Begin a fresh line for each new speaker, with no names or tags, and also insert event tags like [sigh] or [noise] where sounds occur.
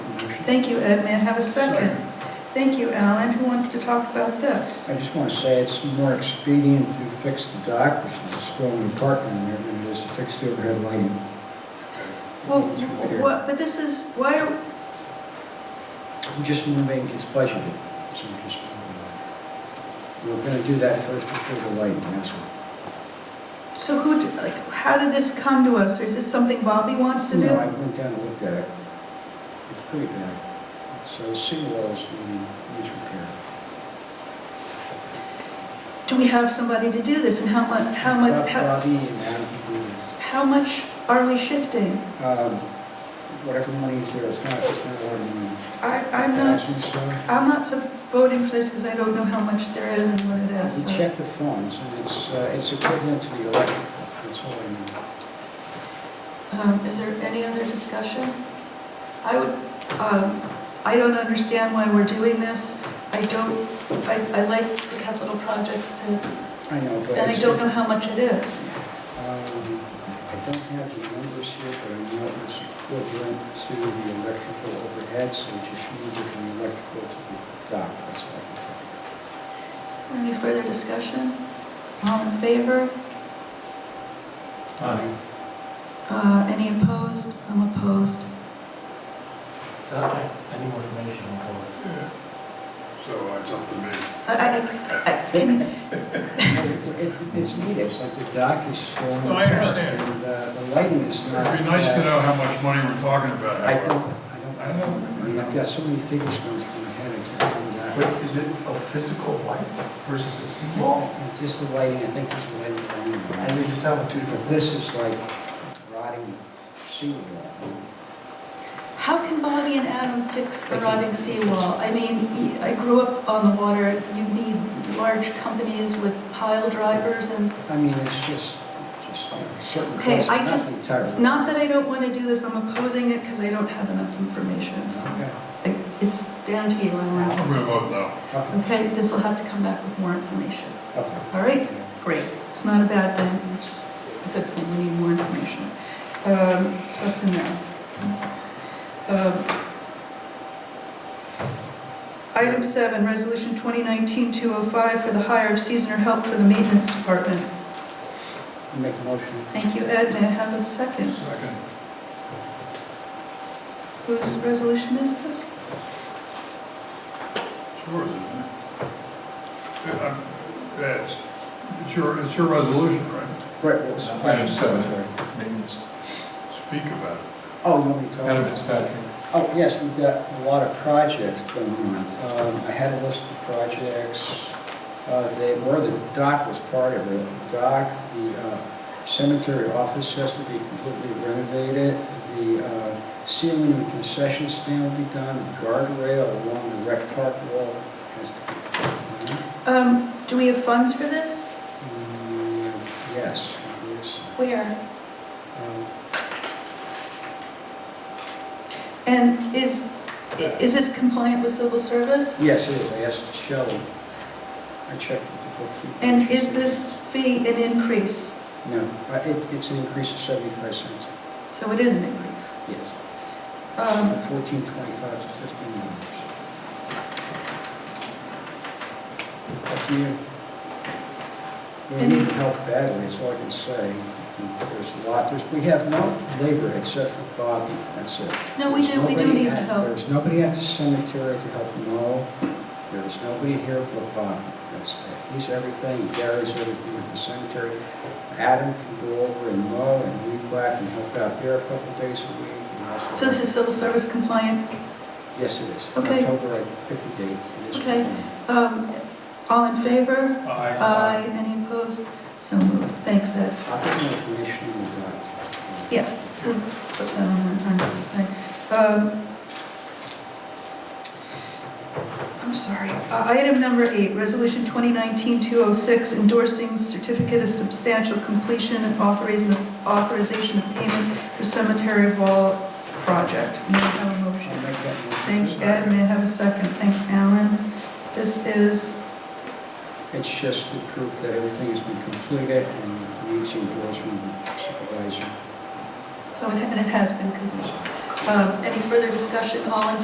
Thank you, Ed. May I have a second? Thank you, Alan. Who wants to talk about this?
I just want to say it's more expedient to fix the dock, which is a in the park down there, than it is to fix the overhead lighting.
Well,
It's right here.
what, but this is, why, are-
I'm just moving, it's budgeted, so I'm just. We're going to do that first before the lighting, that's all.
so who, d- like, how did this come to us? Or is this something Bobby wants to do?
No, I went down and looked at it. It's pretty bad. So seawall is needing needs repair.
Do we have somebody to do this, and how much, how
Bob-
much, how-
Bobby and Adam can do this.
how much are we shifting?
Um, Whatever money's there, it's not, it's not a lot of money.
I, I'm not,
Thousand, so.
I'm not so voting for this because I don't know how much there is and what it is.
We
so-
checked the funds, and it's, uh, it's equivalent to the electric, that's all I know.
Um, Is there any other discussion? I would, um, I don't understand why we're doing this. I don't, I I like the capital projects to,
I know, but.
and I
it's-
don't know how much it is.
Um, I don't have the numbers here, but I know it's equivalent to the electrical overhead, so you just move it from the electrical to the dock, that's all. I can tell you.
Is there any further discussion? All in favor?
Aye.
Uh, Any opposed? I'm opposed.
It's not like any more information on both.
So uh, it's up to me.
I- I- I- I- can-
[laughs] It- it- It's needed, it's like the dock is still. in
No, I
the park,
understand.
And uh, the lighting is not.
It'd be nice to
uh,
know how much money we're talking about,
I don't,
however.
I don't.
I know.
I mean, I've got so many figures going through my head, I can't remember that.
But is it a physical light versus a seawall?
It's Just the lighting, I think it's the lighting. that I'm in.
I mean, you sound two
But
different things.
this is like rotting seawall.
How can Bobby and Adam fix a rotting seawall? I mean, I grew up on the water. You need large companies with pile drivers and
I mean, it's just, just like certain.
Okay,
places,
I
not
just,
entirely.
it's not that I don't want to do this, I'm opposing it because I don't have enough information. So
Okay,
I- It's down to you, Alan.
I'm gonna vote no.
okay,
Okay, this will have to come back with more information.
okay.
All right? Great. It's not a bad thing, it's just a good thing, we need more information. Um, So that's a no. Um, Item seven, Resolution 2019-205 for the hire of seasonal help for the maintenance department.
I Make a motion.
Thank you, Ed. May I have a second?
Second.
Whose resolution is this?
It's yours, isn't it? Yeah, I'm- That's, it's your, it's your resolution, right?
Right, well, it's-
Item seven.
Sorry.
Maintenance.
Speak about it.
Oh, let me talk.
Adam, it's back.
Oh, yes, we've got a lot of projects going on. Um, I had a list of projects, uh, they, where the dock was part of it. The Dock, the uh, cemetery office has to be completely renovated, the uh, ceiling and concession stand will be done, The guardrail along the rec park wall has to be done.
Um, do we have funds for this?
Mm, Yes, yes.
Where?
Um,
And is, is this compliant with civil service?
Yes, it is, I asked Shelley. I checked with the bookkeeper.
And is this fee an increase?
No, I think it's an increase of 75 cents,
So it is an increase.
yes.
Um,
1425 to 15 dollars. Up to you. We
Any-
need help badly, that's all I can say. There's a lot, there's, we have no labor except for Bobby, that's it.
No, we do- we do
There's
need
nobody at-
help.
There's nobody at the cemetery to help Mo. There's nobody here but Bobby, that's it. He's everything, Gary's everything at the cemetery. Adam can go over and mow and weed whack and help out there a couple days a week. and also-
so this is civil service compliant?
Yes, it is.
Okay.
October, I picked the date. It is.
Okay. Um, all in favor?
Aye.
Aye. Any opposed? So moved. Thanks, Ed.
I'll get more information on that.
Yeah. we'll put that on our- on our next thing. Um, I'm sorry. Uh, Item number eight, Resolution 2019-206, endorsing certificate of substantial completion and authorizing, authorization of payment for cemetery wall project. May I have a
I'll
motion?
make that motion.
Thanks, Ed. May I have a second? Thanks, Alan. This is,
It's just the proof that everything has been completed and needs endorsement of supervisor.
so it and it has been completed. Um, Any further discussion? All in